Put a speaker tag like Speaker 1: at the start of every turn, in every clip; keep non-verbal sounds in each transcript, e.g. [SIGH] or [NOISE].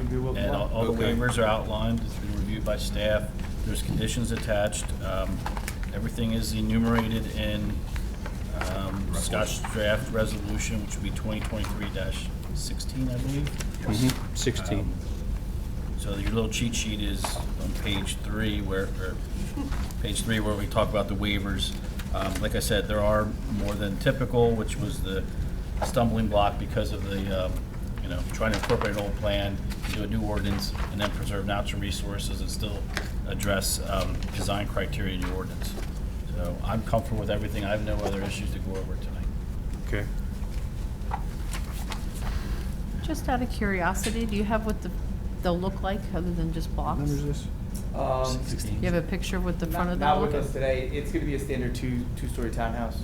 Speaker 1: And all all the
Speaker 2: Okay.
Speaker 1: waivers are outlined, it's been reviewed by staff, there's conditions attached. Um, Everything is enumerated in um, Scott's draft resolution, which would be 2023-16, I believe.
Speaker 3: 16.
Speaker 1: So your little cheat sheet is on page three where, or page three where we talk about the waivers. Um, Like I said, there are more than typical, which was the stumbling block because of the, um, you know, trying to incorporate an old plan, do a new ordinance, and then preserve natural resources and still address um, design criteria in your ordinance. So I'm comfortable with everything. I have no other issues to go over tonight.
Speaker 3: Um, Okay.
Speaker 4: Just out of curiosity, do you have what the, they'll look like other than just blocks? Do
Speaker 5: Um,
Speaker 4: you have a picture with the front
Speaker 5: not,
Speaker 4: of
Speaker 5: not
Speaker 4: them?
Speaker 5: with us
Speaker 4: looking?
Speaker 5: today. It's gonna be a standard two, two-story townhouse.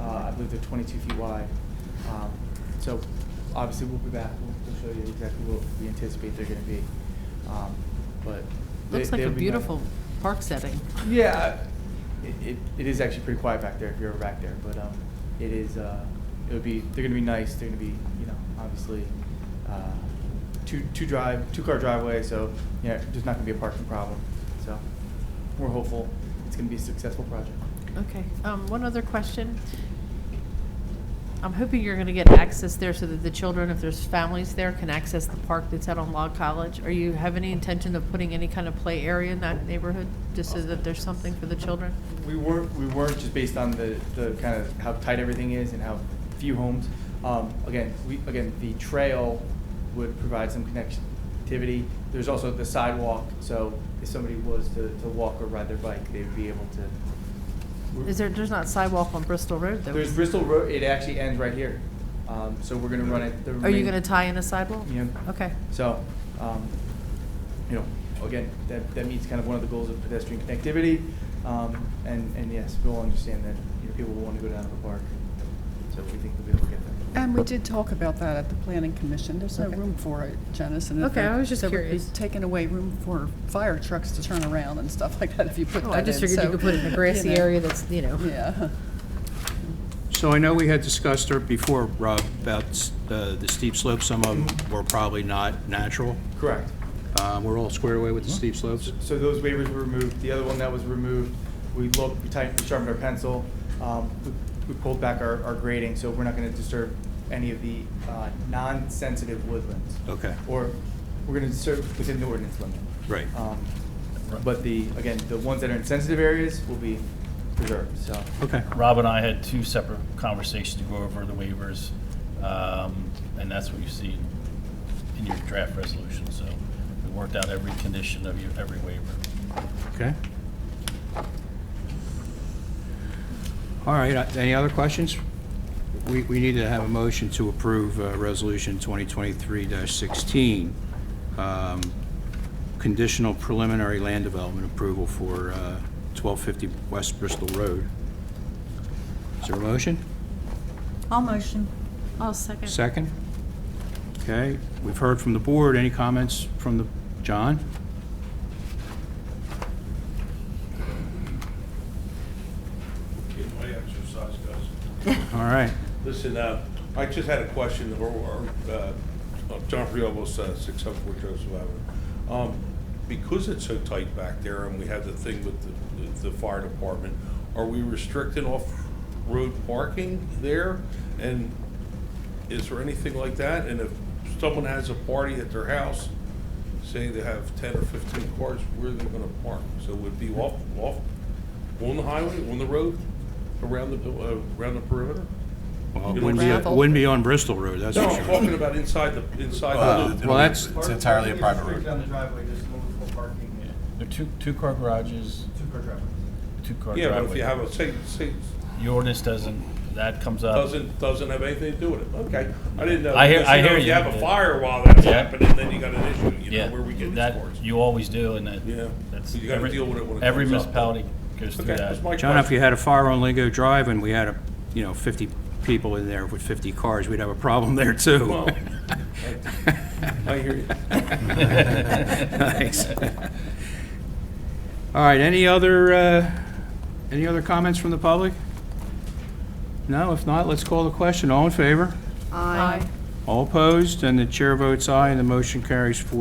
Speaker 5: Uh, I believe they're twenty-two feet wide. Um, so obviously we'll be back. We'll, we'll show you exactly what we anticipate they're gonna be. Um, but. they-
Speaker 4: Looks like a
Speaker 5: they'll be nice.
Speaker 4: beautiful park setting.
Speaker 5: Yeah, I- it, it, it is actually pretty quiet back there if you're ever back there, but, um, it is, uh, it would be, they're gonna be nice, they're gonna be, you know, obviously, uh, two, two drive, two car driveway, so, yeah, there's not gonna be a parking problem, so, we're hopeful it's gonna be a successful project.
Speaker 4: Okay, um, one other question. I'm hoping you're gonna get access there so that the children, if there's families there, can access the park that's out on Log College. Are you, have any intention of putting any kind of play area in that neighborhood, just so that there's something for the children?
Speaker 5: We weren't, we weren't just based on the, the kind of how tight everything is and how few homes. Um, again, we, again, the trail would provide some connectivity. There's also the sidewalk, so if somebody was to, to walk or ride their bike, they would be able to.
Speaker 4: Is there, there's not sidewalk on Bristol Road, though?
Speaker 5: There's Bristol Road, it actually ends right here. Um, so we're gonna run it. the
Speaker 4: Are you
Speaker 5: remain-
Speaker 4: gonna tie in a sidewalk?
Speaker 5: Yeah.
Speaker 4: Okay.
Speaker 5: So, um, you know, again, that, that meets kind of one of the goals of pedestrian connectivity. Um, and, and yes, we'll understand that, you know, people will want to go down to the park. So we think we'll be able to get there.
Speaker 6: And we did talk about that at the planning commission. There's no
Speaker 4: Okay.
Speaker 6: room for it, Janice. and if
Speaker 4: Okay, I
Speaker 6: it-
Speaker 4: was just
Speaker 6: there would be
Speaker 4: curious.
Speaker 6: Taking away room for fire trucks to turn around and stuff like that if you put that
Speaker 4: Oh,
Speaker 6: in.
Speaker 4: I just figured you
Speaker 6: so,
Speaker 4: could put it in a grassy
Speaker 6: you know,
Speaker 4: area that's, you know.
Speaker 6: Yeah.
Speaker 3: So I know we had discussed there before, Rob, about s- uh, the steep slopes. Some of them were probably not natural.
Speaker 5: Correct.
Speaker 3: Uh, We're all squared away with the steep slopes.
Speaker 5: So those waivers were removed. The other one that was removed, we looked, we tightened, we sharpened our pencil. Um, we- we pulled back our, our grading, so we're not going to disturb any of the, uh, non-sensitive woodlands.
Speaker 3: Okay.
Speaker 5: Or, we're going to disturb within the ordinance limit.
Speaker 3: Right.
Speaker 5: Um, But the, again, the ones that are in sensitive areas will be preserved, so.
Speaker 3: Okay.
Speaker 1: Rob and I had two separate conversations to go over the waivers, um, and that's what you see in your draft resolution. So we worked out every condition of your, every waiver.
Speaker 3: Okay. All right, uh, any other questions? We, we need to have a motion to approve uh, Resolution 2023-16, um, conditional preliminary land development approval for uh, 1250 West Bristol Road. Is there a motion?
Speaker 7: I'll motion.
Speaker 4: I'll second.
Speaker 3: Second? Okay, we've heard from the board. Any comments from the, John?
Speaker 8: Get my exercise, guys.
Speaker 3: All right.
Speaker 8: Listen, uh, I just had a question, or, or, uh, John Friola says, six seven four Joseph Avenue. Um, because it's so tight back there and we have the thing with the, the fire department, are we restricted off-road parking there? And is there anything like that? And if someone has a party at their house, say they have ten or fifteen cars, where are they gonna park? So it would be off, off, on the highway, on the road, around the, uh, around the perimeter?
Speaker 3: Well, it
Speaker 8: Good
Speaker 3: Wouldn't be,
Speaker 4: Gravel.
Speaker 3: wouldn't be on Bristol Road, that's
Speaker 8: No,
Speaker 3: for
Speaker 8: I'm
Speaker 3: sure.
Speaker 8: talking about inside the, inside the
Speaker 2: Well,
Speaker 8: loop.
Speaker 3: Well, that's-
Speaker 2: It's entirely a private road.
Speaker 5: the driveway, there's multiple parking,
Speaker 1: There are two, two-car garages,
Speaker 5: two-car driveways.
Speaker 1: two-car driveway.
Speaker 8: Yeah, but if you have a, say, say,
Speaker 1: Your ordinance doesn't, that comes up.
Speaker 8: doesn't, doesn't have anything to do with it, okay. I didn't know.
Speaker 1: I hear-
Speaker 8: because,
Speaker 1: I hear
Speaker 8: know, If
Speaker 1: you.
Speaker 8: you have a fire while that's
Speaker 1: Yeah.
Speaker 8: happening, then you got an issue, you
Speaker 1: Yeah,
Speaker 8: know, where we get these
Speaker 1: that-
Speaker 8: cars.
Speaker 1: You always do, and that.
Speaker 8: Yeah.
Speaker 1: That's.
Speaker 8: You gotta
Speaker 1: every-
Speaker 8: deal with it when it
Speaker 1: Every
Speaker 8: comes up.
Speaker 1: municipality goes through
Speaker 8: Okay, that's my
Speaker 1: that.
Speaker 3: John, if
Speaker 8: question.
Speaker 3: you had a fire on Lingo Drive and we had, a you know, 50 people in there with 50 cars, we'd have a problem there, too.
Speaker 8: Well,
Speaker 3: [LAUGHS]
Speaker 8: I hear you.
Speaker 3: Thanks. All right, any other, uh, any other comments from the public? No, if not, let's call the question. All in favor?
Speaker 4: Aye.
Speaker 3: All opposed? And the chair votes aye, and the motion carries four